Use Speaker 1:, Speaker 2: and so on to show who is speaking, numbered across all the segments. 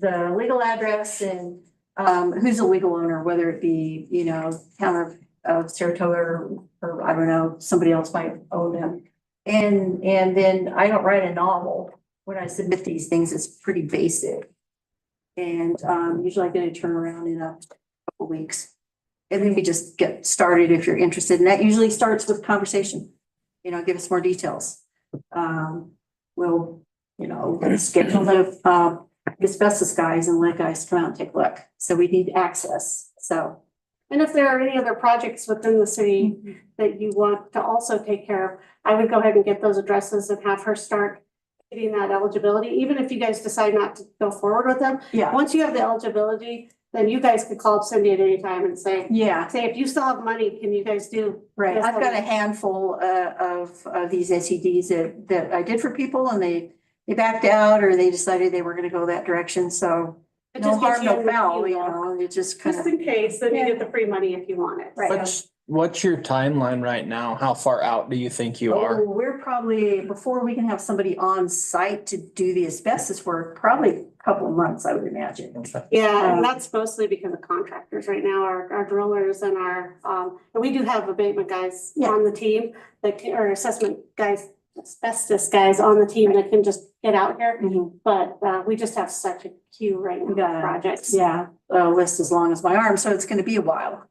Speaker 1: the legal address and um, who's the legal owner, whether it be, you know, town of, of Saratoga or, or I don't know, somebody else might own them. And, and then I don't write a novel. When I submit these things, it's pretty basic. And, um, usually I get a turnaround in a couple weeks. And then we just get started if you're interested. And that usually starts with conversation. You know, give us more details. Um, we'll, you know, schedule the, uh, asbestos guys and lead guys to come out and take a look. So we need access, so.
Speaker 2: And if there are any other projects within the city that you want to also take care of, I would go ahead and get those addresses and have her start getting that eligibility, even if you guys decide not to go forward with them.
Speaker 1: Yeah.
Speaker 2: Once you have the eligibility, then you guys can call up Cindy at any time and say,
Speaker 1: Yeah,
Speaker 2: say, if you still have money, can you guys do?
Speaker 1: right. I've got a handful uh of of these SEDs that that I did for people and they they backed out or they decided they were gonna go that direction, so.
Speaker 2: It
Speaker 1: No
Speaker 2: just gets
Speaker 1: harm,
Speaker 2: you
Speaker 1: no
Speaker 2: in the
Speaker 1: foul,
Speaker 2: queue,
Speaker 1: you
Speaker 2: though.
Speaker 1: know, it just kind
Speaker 2: Just
Speaker 1: of,
Speaker 2: in case, then you get the free money if you want it.
Speaker 1: Right.
Speaker 3: What's, what's your timeline right now? How far out do you think you
Speaker 1: oh,
Speaker 3: are?
Speaker 1: we're probably, before we can have somebody on site to do the asbestos work, probably a couple of months, I would imagine.
Speaker 2: Yeah,
Speaker 1: Um,
Speaker 2: and that's mostly because of contractors right now, our, our drillers and our, um, and we do have abatement guys
Speaker 1: Yeah.
Speaker 2: on the team, like, or assessment guys, asbestos guys on the team that can just get out here,
Speaker 1: Mhm.
Speaker 2: but, uh, we just have such a queue right now
Speaker 1: Yeah.
Speaker 2: of projects.
Speaker 1: Yeah, a list as long as my arm, so it's gonna be a while.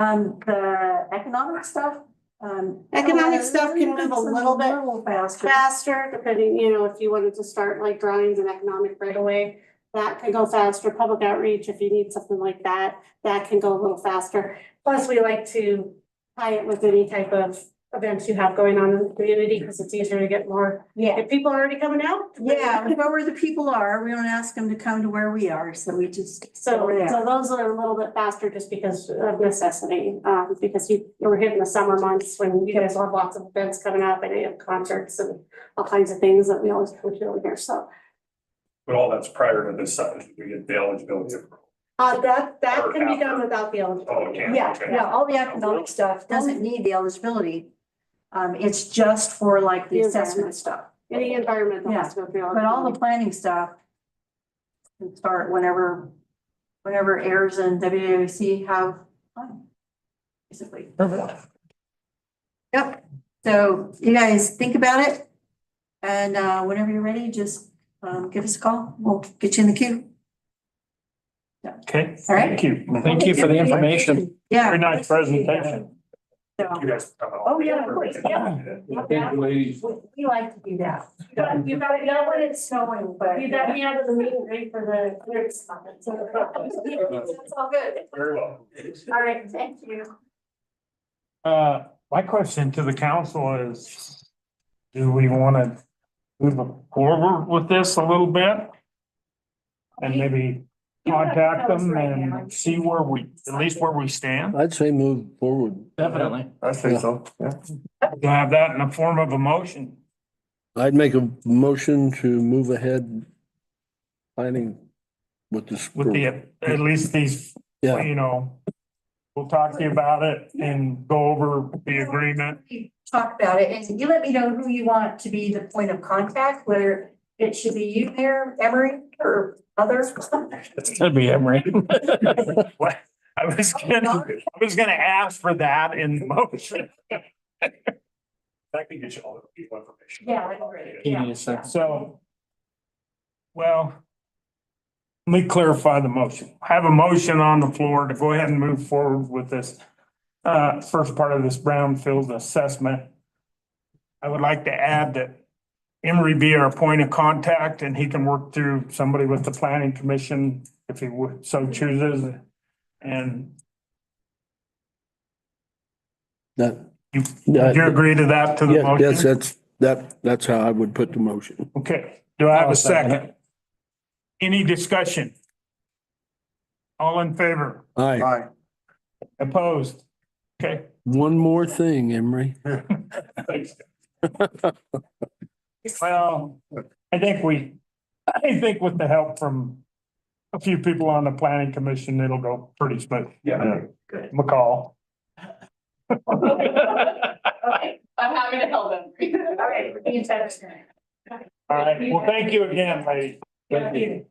Speaker 1: Um, the economic stuff, um.
Speaker 2: Economic stuff can move a little bit
Speaker 1: little Faster.
Speaker 2: Faster, depending, you know, if you wanted to start like drawings and economic right away, that could go faster, public outreach, if you need something like that, that can go a little faster. Plus, we like to tie it with any type of events you have going on in the community, because it's easier to get more,
Speaker 1: Yeah,
Speaker 2: if people are already coming out.
Speaker 1: yeah, we know where the people are. We don't ask them to come to where we are, so we just.
Speaker 2: So,
Speaker 1: Over there.
Speaker 2: so those are a little bit faster just because of necessity, um, because you, we're hitting the summer months when you guys have lots of events coming up and you have concerts and all kinds of things that we always come to over here, so.
Speaker 4: But all that's prior to this sentence, we get the eligibility approval.
Speaker 2: Uh, that, that
Speaker 4: Or
Speaker 2: can be done
Speaker 4: after.
Speaker 2: without the
Speaker 4: Oh,
Speaker 2: eligibility.
Speaker 4: okay.
Speaker 1: Yeah, yeah, all the economic stuff doesn't need the eligibility. Um, it's just for like the assessment stuff,
Speaker 2: Any environmental has to go through.
Speaker 1: but all the planning stuff. Can start whenever, whenever AIRS and WWC have. time, Basically. Yep, so you guys think about it. And uh, whenever you're ready, just um, give us a call. We'll get you in the queue.
Speaker 5: Okay.
Speaker 1: All right.
Speaker 5: Thank you. Thank you for the information.
Speaker 1: Yeah.
Speaker 5: Very nice presentation.
Speaker 1: So,
Speaker 4: You guys come out.
Speaker 1: Oh, yeah, of course, yeah. We we like to do that.
Speaker 2: You got, you got,
Speaker 1: it's snowing, but.
Speaker 2: you got me out of the meeting ready for the clearance comments.
Speaker 1: It's all good.
Speaker 4: Very well.
Speaker 2: All right, thank you.
Speaker 5: Uh, my question to the council is, do we want to move forward with this a little bit? And maybe contact them and see where we, at least where we stand?
Speaker 6: I'd say move forward.
Speaker 3: Definitely.
Speaker 5: I
Speaker 6: think
Speaker 5: so, yeah. We'll have that in the form of a motion.
Speaker 6: I'd make a motion to move ahead planning with this.
Speaker 5: with the, at least these,
Speaker 6: Yeah.
Speaker 5: you know, we'll talk to you about it and go over the agreement.
Speaker 1: We Talk about it and you let me know who you want to be the point of contact, whether it should be you, Mayor Emery, or others.
Speaker 5: It's gonna be Emery. I was gonna, I was gonna ask for that in the motion.
Speaker 4: That can get you all the people information.
Speaker 1: Yeah, I agree.
Speaker 3: Give me a second.
Speaker 5: So, well, let me clarify the motion. I have a motion on the floor to go ahead and move forward with this uh, first part of this brownfield assessment. I would like to add that Emery be our point of contact and he can work through somebody with the planning commission if he would so chooses. And
Speaker 6: That,
Speaker 5: you, do you
Speaker 6: that,
Speaker 5: agree to that to the
Speaker 6: yes, Uh, yes,
Speaker 5: motion?
Speaker 6: that's, that, that's how I would put the motion.
Speaker 5: Okay, do I have
Speaker 3: I'll
Speaker 5: a
Speaker 3: second
Speaker 5: second? Any discussion? All in favor?
Speaker 6: Aye.
Speaker 5: Opposed? Okay,
Speaker 6: One more thing, Emery.
Speaker 5: well, I think we, I think with the help from a few people on the planning commission, it'll go pretty smooth.
Speaker 4: Yeah.
Speaker 5: McCall.
Speaker 7: Okay, I'm happy to help them.
Speaker 1: All right, we're being satisfied.
Speaker 5: All right, well, thank you again, ladies.
Speaker 7: Thank
Speaker 5: you.